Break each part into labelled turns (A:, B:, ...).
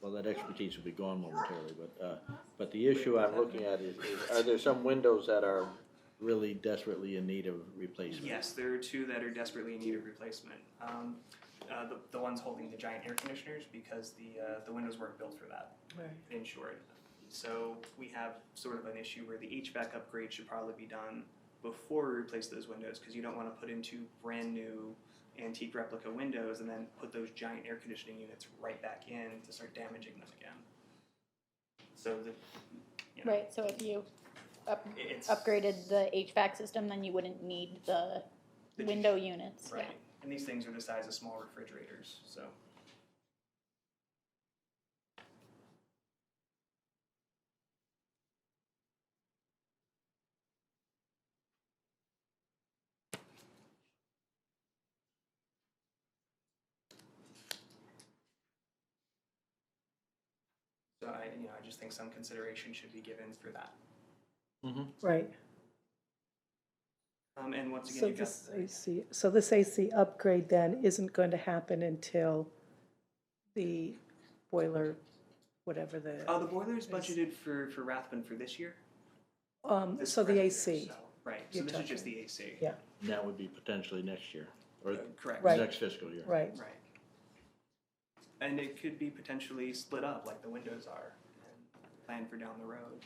A: well, that expertise will be gone momentarily, but, uh, but the issue I'm looking at is, is are there some windows that are really desperately in need of replacement?
B: Yes, there are two that are desperately in need of replacement. Um, uh, the, the ones holding the giant air conditioners because the uh, the windows weren't built for that, insured. So we have sort of an issue where the HVAC upgrade should probably be done before we replace those windows because you don't want to put in two brand new antique replica windows and then put those giant air conditioning units right back in to start damaging them again. So the you know,
C: Right, so if you up,
B: it- it's
C: upgraded the HVAC system, then you wouldn't need the
B: the-
C: window units.
B: Right. And these things are the size of small refrigerators, so. So I, you know, I just think some consideration should be given for that.
D: Right,
B: Um, and once again,
D: so
B: you've got.
D: this AC, so this AC upgrade then isn't going to happen until the boiler, whatever
B: Uh,
D: the,
B: the boiler is budgeted for, for Rathbun for this year.
D: um,
B: this
D: so the
B: current year,
D: AC,
B: so- Right, so
D: you're
B: this is just
D: talking.
B: the AC.
D: Yeah.
A: And That would be potentially next year, or
B: Uh, Correct.
D: Right.
A: next fiscal year.
D: right,
B: Right. And it could be potentially split up like the windows are and planned for down the road.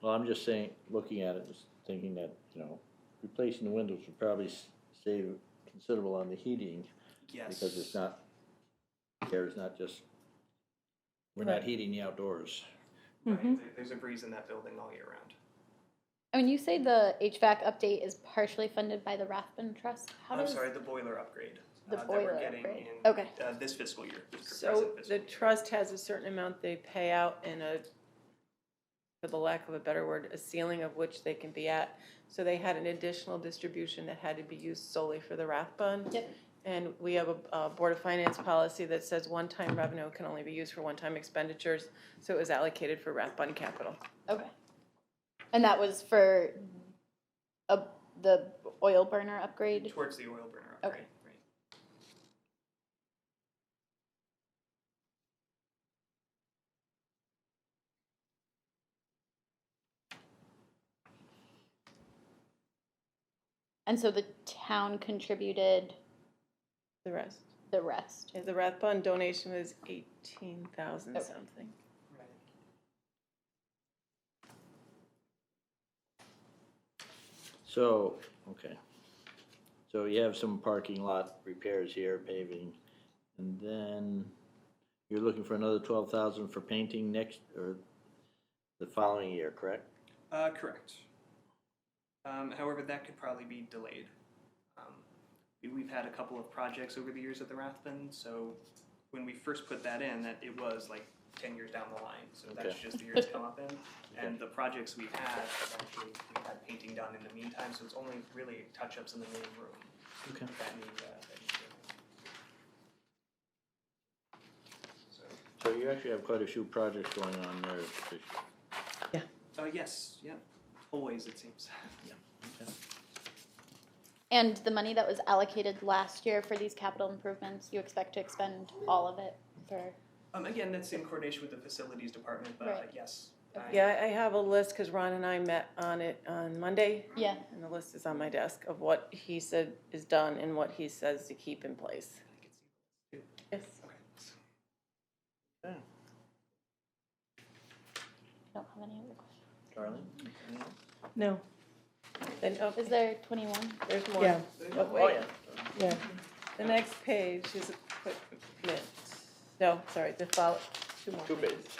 A: Well, I'm just saying, looking at it, just thinking that, you know, replacing the windows would probably s- save considerable on the heating,
B: Yes.
A: because it's not, air is not just, we're not
D: Right.
A: heating the outdoors.
B: Right,
D: Mhm.
B: there- There's a breeze in that building all year round.
C: I mean, you say the HVAC update is partially funded by the Rathbun Trust. How
B: I'm
C: does
B: sorry, the boiler upgrade.
C: The
B: uh,
C: boiler
B: That we're
C: upgrade.
B: getting in.
C: Okay.
B: Uh, this fiscal year. this
E: So
B: present fiscal
E: the
B: year.
E: trust has a certain amount they pay out and a, for the lack of a better word, a ceiling of which they can be at. So they had an additional distribution that had to be used solely for the Rathbun.
C: Yep.
E: And we have a, uh Board of Finance policy that says one-time revenue can only be used for one-time expenditures. So it was allocated for Rathbun capital.
C: Okay. And that was for a, the oil burner upgrade?
B: Towards the oil burner
C: Okay.
B: upgrade, right.
C: And so the town contributed
E: The rest,
C: the rest.
E: the Rathbun donation was eighteen thousand
C: Okay.
E: something.
B: Right.
A: So, okay. So you have some parking lot repairs here, paving, and then you're looking for another twelve thousand for painting next, or the following year, correct?
B: Uh, correct. Um, however, that could probably be delayed. Um, we- we've had a couple of projects over the years at the Rathbun, so when we first put that in, that it was like ten years down the line, so that's
A: Okay.
B: just the year it's come up in. And the projects we've had, have actually, we've had painting done in the meantime, so it's only really touch-ups in the main room
A: Okay.
B: that need, uh, that need doing. So,
A: So you actually have quite a few projects going on there. this year.
B: uh, yes, yeah, always it seems.
C: And the money that was allocated last year for these capital improvements, you expect to expend all of it for?
B: Um, again, that's in coordination with the facilities department, but uh,
C: Right.
B: yes. I-
E: Yeah, I I have a list, because Ron and I met on it on Monday.
C: Yeah.
E: And the list is on my desk of what he said is done and what he says to keep in place. Yes.
B: Okay.
C: I don't have any other questions.
A: Darlene?
D: no,
E: Then, oh,
C: Is there 21?
E: there's
D: yeah,
E: more.
B: Oh,
E: Oh, wait.
D: yeah.
E: The next page is a quick minute. No, sorry, the follow, two more.
A: Two
E: pages.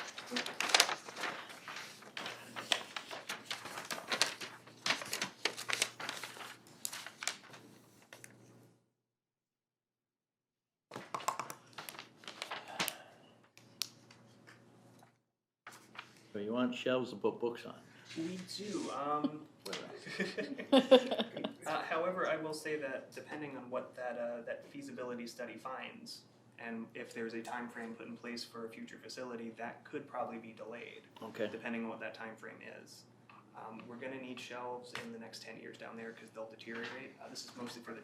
A: So you want shelves to put books on.
B: We do. Um, uh, however, I will say that depending on what that uh, that feasibility study finds, and if there's a time frame put in place for a future facility, that could probably be delayed,
A: Okay,
B: depending on what that time frame is. Um, we're going to need shelves in the next ten years down there because they'll deteriorate. Uh, this is mostly for the